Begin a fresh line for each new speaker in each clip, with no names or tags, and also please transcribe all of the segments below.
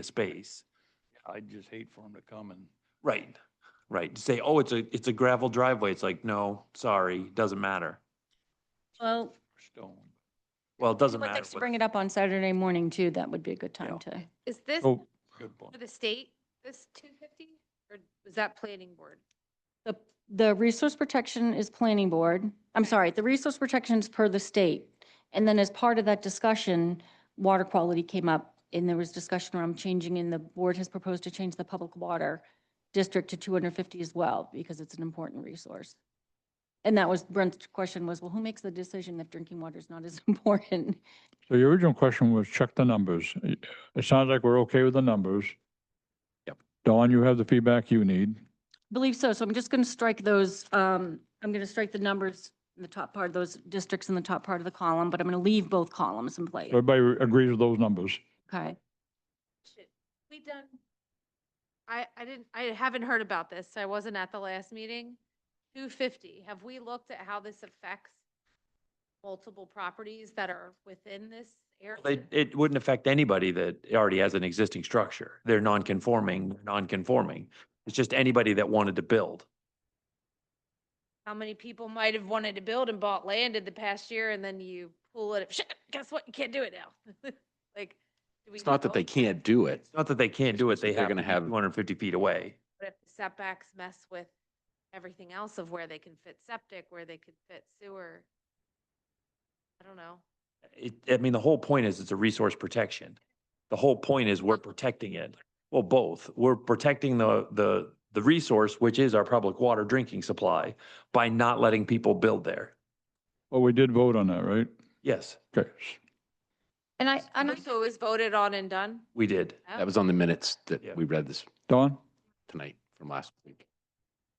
the space.
I'd just hate for them to come and,
Right, right. To say, oh, it's a, it's a gravel driveway. It's like, no, sorry, doesn't matter.
Well,
stone.
Well, it
I'd
doesn't matter.
like to
what-
bring it up on Saturday morning too. That would be a good time to.
Is this
Oh,
Good point.
for the state, this two fifty, or was that planning board?
The, the resource protection is planning board. I'm sorry, the resource protection is per the state. And then as part of that discussion, water quality came up and there was discussion around changing and the board has proposed to change the public water district to 250 as well because it's an important resource. And that was Brent's question was, well, who makes the decision if drinking water is not as important?
so your original question was check the numbers. Y- It sounds like we're okay with the numbers.
Yep.
Dawn, you have the feedback you need.
Believe so. So I'm just going to strike those, um, I'm going to strike the numbers in the top part, those districts in the top part of the column, but I'm going to leave both columns in place.
Everybody re- agrees with those numbers.
Okay.
We done. I, I didn't, I haven't heard about this, so I wasn't at the last meeting. Two fifty, have we looked at how this affects multiple properties that are within this area?
It, it wouldn't affect anybody that already has an existing structure. They're non-conforming, they're non-conforming. It's just anybody that wanted to build.
How many people might have wanted to build and bought land in the past year and then you pull it, shit, guess what? You can't do it now. Like. do we
It's not that they
know?
can't do it.
It's not that they can't do it,
It's just
they
that they're
have to
gonna
be
have-
250 feet away.
But if the setbacks mess with everything else of where they can fit septic, where they could fit sewer? I don't know.
It, I mean, the whole point is it's a resource protection. The whole point is we're protecting it. Well, both. We're protecting the, the, the resource, which is our public water drinking supply, by not letting people build there.
Well, Oh, we did vote on that, right?
Yes,
Okay.
And I, and I,
So it was voted on and done?
we did.
Oh.
That was on the minutes
Yeah.
that we read this
Dawn?
tonight from last week.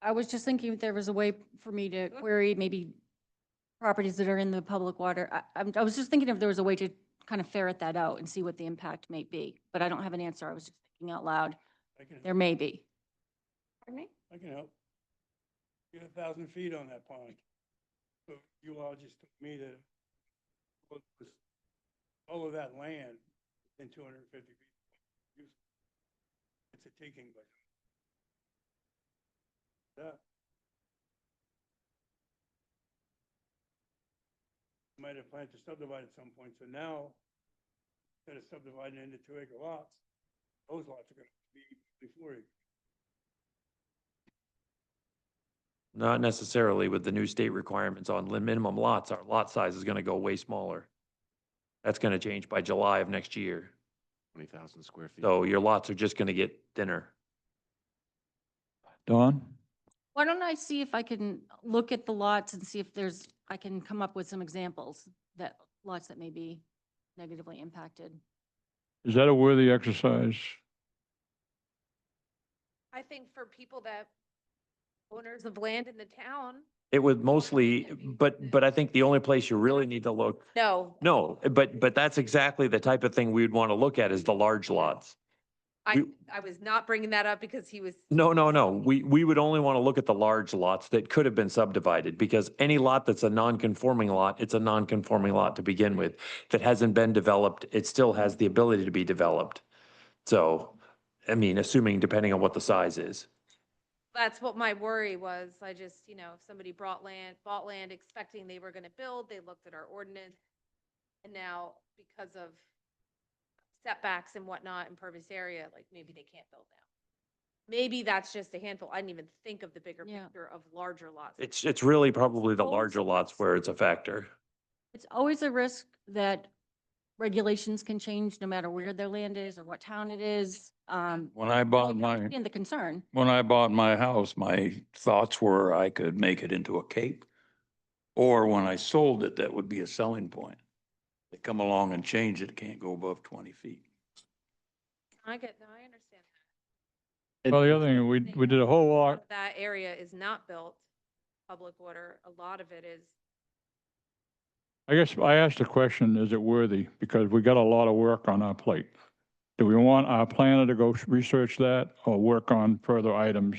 I was just thinking if there was a way for me to query maybe properties that are in the public water. I, I'm- I was just thinking if there was a way to kind of ferret that out and see what the impact may be, but I don't have an answer. I was just thinking out loud.
I can,
There may be.
I can help. Get a thousand feet on that pond. But you all just told me that what was all of that land in two hundred and fifty feet. It's a taking, but. That. Might have planned to subdivide at some point, so now, instead of subdividing into two acre lots, those lots are gonna be before you.
Not necessarily with the new state requirements on lim- minimum lots, our lot size is gonna go way smaller. That's gonna change by July of next year.
20,000 square feet.
So your lots are just gonna get thinner.
Dawn?
Why don't I see if I can look at the lots and see if there's, I can come up with some examples that lots that may be negatively impacted.
Is that a worthy exercise?
I think for people that owners of land in the town,
It would mostly,
Maybe.
but, but I think the only place you really need to look,
no.
no, but, but that's exactly the type of thing we would wanna look at is the large lots.
I,
we-
I was not bringing that up because he was,
No, no, no. We, we would only want to look at the large lots that could have been subdivided because any lot that's a non-conforming lot, it's a non-conforming lot to begin with. That hasn't been developed, it still has the ability to be developed. So, I mean, assuming depending on what the size is.
that's what my worry was. I just, you know, if somebody brought land, bought land expecting they were gonna build, they looked at our ordinance. And now because of setbacks and whatnot, impervious area, like maybe they can't build now. Maybe that's just a handful. I didn't even think of the bigger
Yeah.
picture of larger lots.
It's, it's really probably the
Well,
larger lots where it's a factor.
It's always a risk that regulations can change no matter where their land is or what town it is. Um,
When I bought my,
and the concern.
when I bought my house, my thoughts were I could make it into a cape. Or when I sold it, that would be a selling point. They come along and change it, can't go above twenty feet.
I get, no, I understand.
And-
Well, the other thing, we, we did a whole
that.
lot,
That area is not built public water. A lot of it is,
I guess I asked the question, is it worthy? Because we got a lot of work on our plate. Do we want our planner to go s- research that or work on further items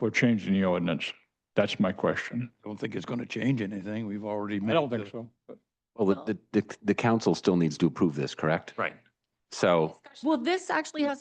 for changing the ordinance? That's my question.
Don't think it's gonna change anything. We've already made.
I don't
the-
think so. but-
Well, the, the, the council still needs to approve this, correct?
Right.
So.
discussion
Well, this actually has